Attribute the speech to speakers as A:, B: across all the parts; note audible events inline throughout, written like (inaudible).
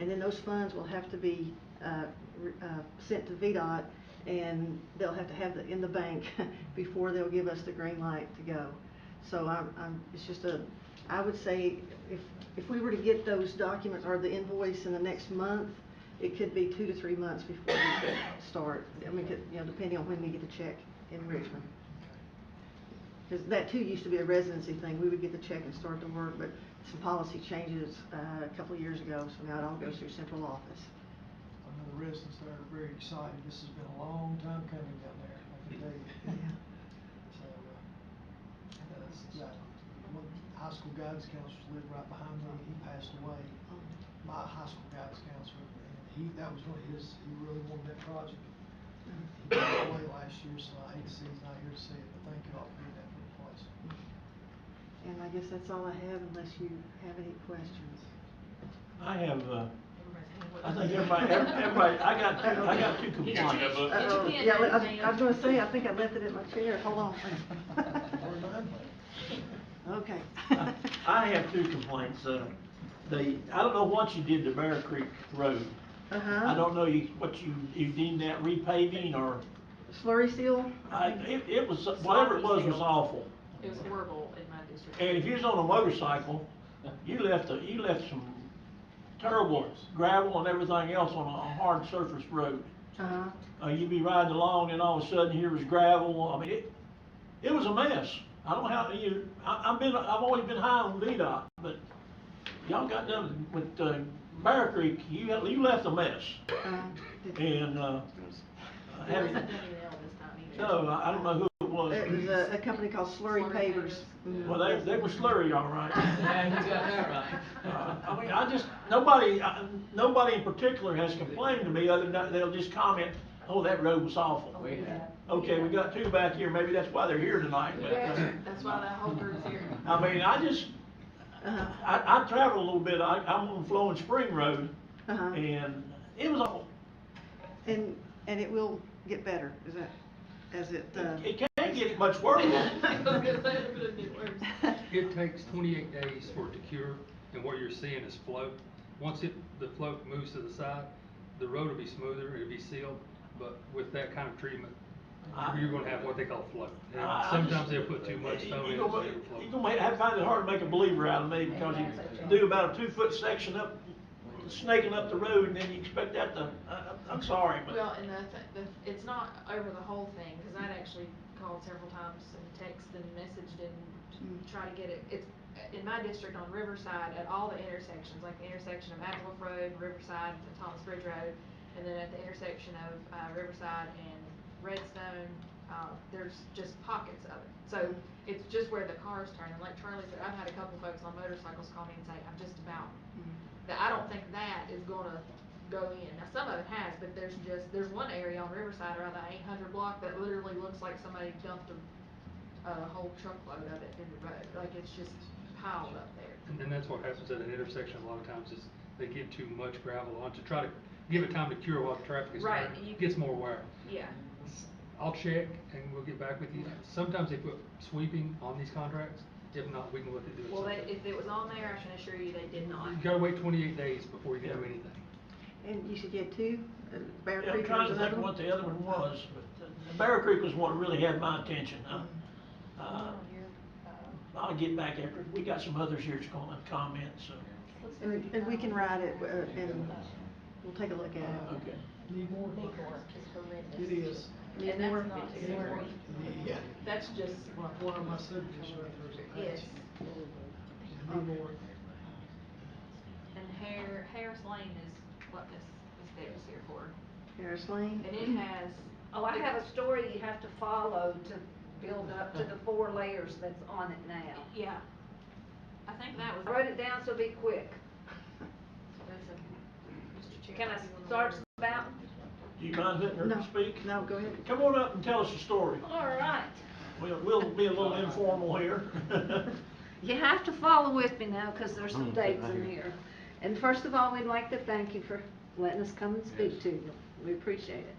A: And then those funds will have to be uh, re- uh, sent to VDOT, and they'll have to have it in the bank (laughs) before they'll give us the green light to go. So I'm, I'm, it's just a, I would say, if, if we were to get those documents or the invoice in the next month, it could be two to three months before we could start, I mean, could- you know, depending on when we get the check in Richmond. Because that too used to be a residency thing, we would get the check and start the work, but some policy changes, uh, a couple of years ago, so now it all goes through central office.
B: I know the residents there are very excited. This has been a long time coming down there, I can
C: (laughs)
B: tell you. So, uh, that's, yeah, one high school guidance counselor lived right behind me, he passed away. My high school guidance counselor, and he, that was really his, he really wanted that project. He passed away last year, so I hate to see he's not here to see it, but thank you all for doing that for the place.
A: And I guess that's all I have unless you have any questions.
D: I have, uh, I think everybody, every- everybody, I got, two- I got two
E: You got your book?
D: complaints.
E: Get your
A: Uh-oh. Uh,
E: pen
A: Yeah,
E: ready,
A: I- I was
E: Sam.
A: gonna say, I think I left it at my chair, hold on.
B: Or
D: (laughs)
B: nine, but-
A: Okay.
D: I- I have two complaints, uh, the, I don't know what you did to Bear Creek Road.
A: Uh-huh.
D: I don't know you, what you, you deemed that repaving or,
A: Slurry seal?
D: I, it, it was, whatever it was was awful.
E: It was horrible in my district.
D: And if you was on a motorcycle, you left, a- you left some terrible gravel and everything else on a hard surface road.
A: Uh-huh.
D: Uh, you'd be riding along and all of a sudden here was gravel, I mean, it, it was a mess. I don't know how, you, I, I've been, I've always been high on VDOT, but y'all got done with, uh, Bear Creek, you, you left a mess. Uh-huh.
A: Uh, did-
D: And, uh, I
E: There
D: haven't-
E: wasn't any nail this time either.
D: no, I I don't know who it
A: It was
D: was.
A: a, a company called Slurry Pavers.
E: Slurry Pavers.
A: Mhm.
D: Mm-hmm. Well, they, they were slurry, all right.
C: Yeah, you got that right.
D: Uh, I mean, I just, nobody, I- nobody in particular has complained to me, other than they'll just comment, oh, that road was awful.
C: We had,
D: Okay, we got two back here, maybe that's why they're here tonight, but, uh,
E: That's why that whole group's here.
D: I mean, I just,
A: Uh-huh.
D: I, I travel a little bit, I, I'm on Flowing Spring Road,
A: Uh-huh.
D: and it was awful.
A: And, and it will get better, is that, as it, uh,
D: It can't get much
E: (laughs)
D: worse.
E: (laughs) I was gonna say, it could've been worse.
A: (laughs)
F: It takes twenty-eight days for it to cure, and what you're seeing is float. Once it, the float moves to the side, the road will be smoother, it'll be sealed, but with that kind of treatment,
D: I-
F: you're gonna have what they call float. And
D: I- I
F: Sometimes
D: just-
F: they'll put too much stone in it,
D: You're
F: so
D: gonna,
F: it'll float.
D: you're gonna have, find it hard to make a believer out of me, because you do about a two-foot section up, snaking up the road, and then you expect that to, I- I, I'm sorry, but.
E: Well, and the, th- the, it's not over the whole thing, cause I'd actually called several times and texted and messaged and
A: Mm.
E: t- tried to get it, it's, in my district on Riverside, at all the intersections, like the intersection of Apple Road, Riverside, and Thomas Bridge Road, and then at the intersection of, uh, Riverside and Redstone, uh, there's just pockets of it. So, it's just where the cars turn, and like Charlie said, I've had a couple folks on motorcycles call me and say, I'm just about that I don't think that is gonna go in. Now, some of it has, but there's just, there's one area on Riverside around that eight hundred block that literally looks like somebody dumped a, a whole truckload of it in the road, like it's just piled up there.
F: And then that's what happens at an intersection a lot of times, is they give too much gravel on to try to give it time to cure while the traffic is
E: Right,
F: there.
E: and you-
F: Gets more wear.
E: Yeah.
F: I'll check and we'll get back with you. Sometimes they put sweeping on these contracts, if not, we can look at doing
E: Well, they,
F: something.
E: if it was on there, I can assure you they did not.
F: You gotta wait twenty-eight days before you can do
D: Yeah.
F: anything.
A: And you should get two, uh, Bear
D: Yeah, I'm
A: Creek
D: trying
A: was
D: to
A: another
D: think
A: one.
D: what the other one was, but uh, Bear Creek was one that really had my attention. Uh, uh, I'll get back after, we got some others here that's gonna comment, so,
A: And, and we can ride it, uh, and we'll take a look at it.
D: okay.
B: Need more? It is.
A: Need
E: And that's
A: more?
E: not
B: Need more.
E: slurry.
B: Yeah.
E: That's just,
B: Like one of my subdivisions right there is a
E: yes.
B: patch. Need more.
E: And Hare, Harris Lane is what this, this day was here for.
A: Harris Lane?
E: And it has.
G: Oh, I have a story you have to follow to build up to the four layers that's on it now.
E: Yeah. I think that was.
G: I wrote it down so be
E: (laughs)
G: quick.
E: That's a- Mr. Chair,
G: Can
E: if you wanna
G: I start
E: order-
G: about?
D: Do you mind letting her
A: No,
D: speak?
A: no, go ahead.
D: Come on up and tell us your story.
G: All right.
D: We'll, we'll be a little informal here. (laughs)
G: You have to follow with me now because there's some dates in here. And first of all, we'd like to thank you for letting us come and speak to you. We appreciate it.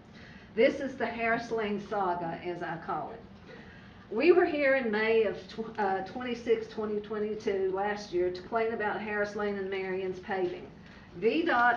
G: This is the Harris Lane Saga, as I call it. We were here in May of tw- uh, 26, 2022, last year, to complain about Harris Lane and Marion's paving. VDOT